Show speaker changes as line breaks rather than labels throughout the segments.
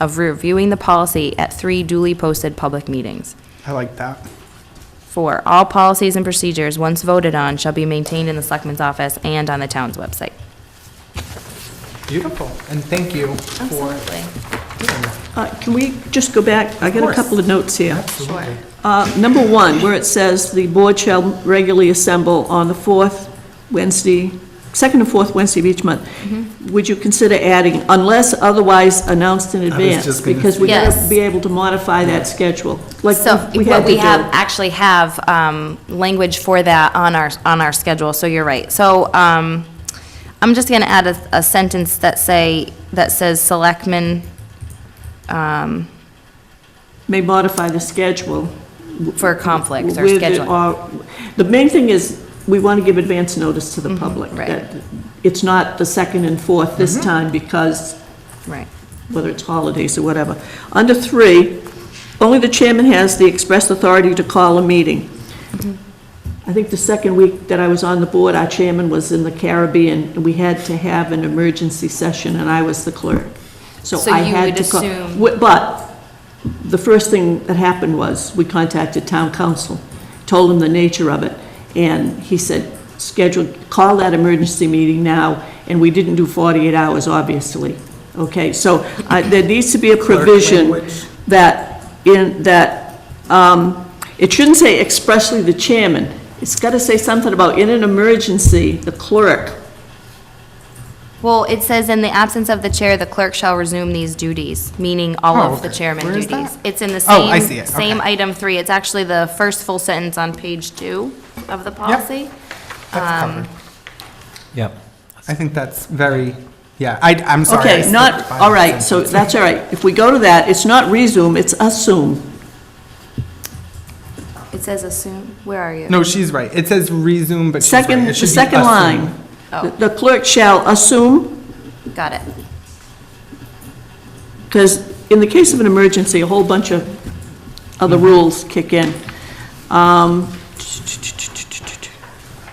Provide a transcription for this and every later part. of reviewing the policy at three duly posted public meetings.
I like that.
Four, all policies and procedures once voted on shall be maintained in the selectman's office and on the town's website.
Beautiful, and thank you for doing that.
Uh, Can we just go back? I got a
course.
couple of notes here.
Absolutely.
Uh, Number one, where it says, "The board shall regularly assemble on the fourth Wednesday, second and fourth Wednesday of each month."
Mm-hmm.
Would you consider adding, "unless otherwise announced in advance"?
just gonna-
Because we're going
Yes.
to be able to modify that schedule, like
So
we
what
had to
we have,
do.
actually have um, language for that on our, on our schedule, so you're right. So um, I'm just going to add a, a sentence that say, that says selectmen
May modify the schedule.
for conflicts or
with the-
scheduling.
or- The main thing is, we want to give advance notice to the public.
Mm-hmm. right. Mm-hmm.
that It's not the second and fourth this time because
Right.
whether it's holidays or whatever. Under three, only the chairman has the express authority to call a meeting. I think the second week that I was on the board, our chairman was in the Caribbean, and we had to have an emergency session, and I was the clerk. So
So
I
you
had
would
to call.
assume-
Wi- But the first thing that happened was, we contacted town council, told him the nature of it, and he said, schedule, call that emergency meeting now, and we didn't do 48 hours, obviously. Okay, so uh, there needs to be a provision
language.
that, in, that, um, it shouldn't say expressly the chairman. It's got to say something about, in an emergency, the clerk.
Well, it says, "In the absence of the chair, the clerk shall resume these duties," meaning all
Oh,
of the
okay.
chairman
Where is
duties.
that?
It's in the
Oh, I see
same,
it.
same
Okay.
item three. It's actually the first full sentence on page two of the policy.
That's
Um,
covered.
Yep.
I think that's very, yeah, I, I'm sorry. I
Okay, not,
skipped by
all
that
right, so
sentence.
that's all right. If we go to that, it's not resume, it's assume.
It says assume, where are you?
No, she's right. It says resume, but she's right.
Second,
It
the
should be
second
assume.
line.
Oh.
The clerk shall assume
Got it.
Because in the case of an emergency, a whole bunch of other
Mm-hmm.
rules kick in. Um,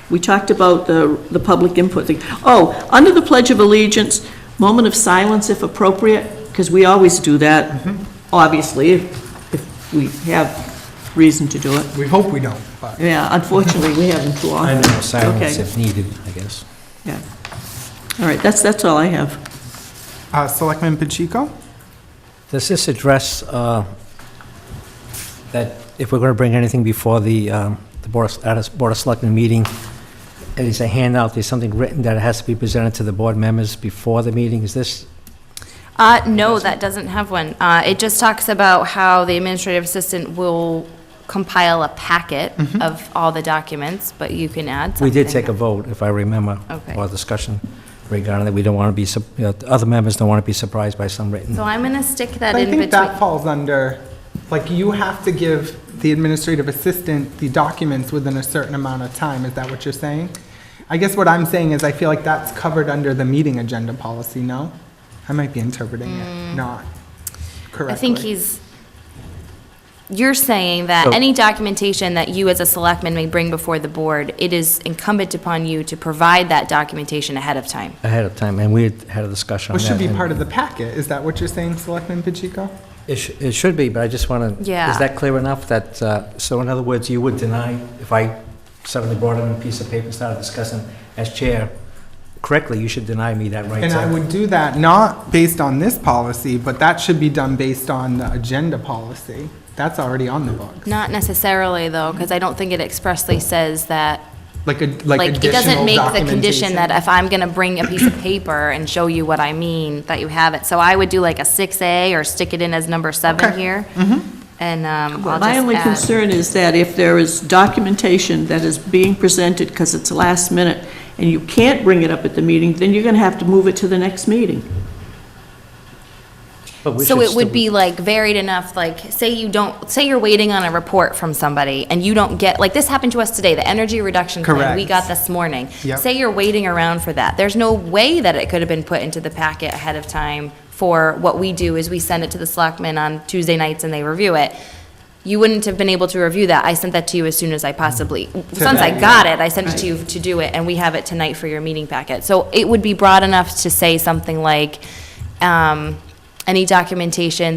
We talked about the, the public input thing. Oh, under the Pledge of Allegiance, moment of silence if appropriate, because we always do that,
Mm-hmm.
obviously, if if we have reason to do it.
We hope we don't, but
Yeah, unfortunately, we haven't too
I
often.
know, silence
Okay,
if needed, I guess.
yeah. All right, that's, that's all I have.
Uh, Selectman Pacheco?
Does this address uh, that if we're going to bring anything before the um, the Board of at a Board of Selectmen meeting, there's a handout, there's something written that has to be presented to the board members before the meeting? Is this,
Uh, no, that doesn't have one. Uh, it just talks about how the administrative assistant will compile a packet
Mm-hmm.
of all the documents, but you can add
we
something.
did take a vote, if I remember,
Okay.
or discussion regarding that. We don't want to be, sup- you know, other members don't want to be surprised by some written.
So I'm gonna stick that
But I
in
think
between.
that falls under, like, you have to give the administrative assistant the documents within a certain amount of time. Is that what you're saying? I guess what I'm saying is I feel like that's covered under the meeting agenda policy, no? I might be interpreting it not correctly.
Mm. I think he's, you're saying that
So-
any documentation that you as a selectman may bring before the board, it is incumbent upon you to provide that documentation ahead of time.
ahead of time, and we had had a discussion on
Which
that.
should be
and
part of the packet. Is that what you're saying, Selectman Pacheco?
It sh- it should be, but I just want to...
Yeah.
Is that clear enough that, uh, so in other words, you would deny, if I suddenly brought in a piece of paper and started discussing as chair, correctly, you should deny me that right to...
And I would do that not based on this policy, but that should be done based on the agenda policy. That's already on the books.
Not necessarily, though, because I don't think it expressly says that,
Like, a- like
like, it doesn't
additional
make the condition
documentation.
that if I'm gonna bring a piece of paper and show you what I mean, that you have it. So I would do like a six A or stick it in as number seven
Okay. Mm-hmm.
here. And, um, I'll
My only
just add.
concern is that if there is documentation that is being presented because it's last minute, and you can't bring it up at the meeting, then you're going to have to move it to the next meeting.
But we
So
should
it would
still-
be like varied enough, like, say you don't, say you're waiting on a report from somebody and you don't get, like, this happened to us today, the energy reduction plan we
Correct.
got this morning.
Yep.
Say you're waiting around for that. There's no way that it could have been put into the packet ahead of time for what we do is we send it to the selectmen on Tuesday nights and they review it. You wouldn't have been able to review that. I sent that to you as soon as I possibly, since I
Today.
got it, I sent it to you to do it, and we have it tonight for your meeting packet. So it would be broad enough to say something like, um, any documentation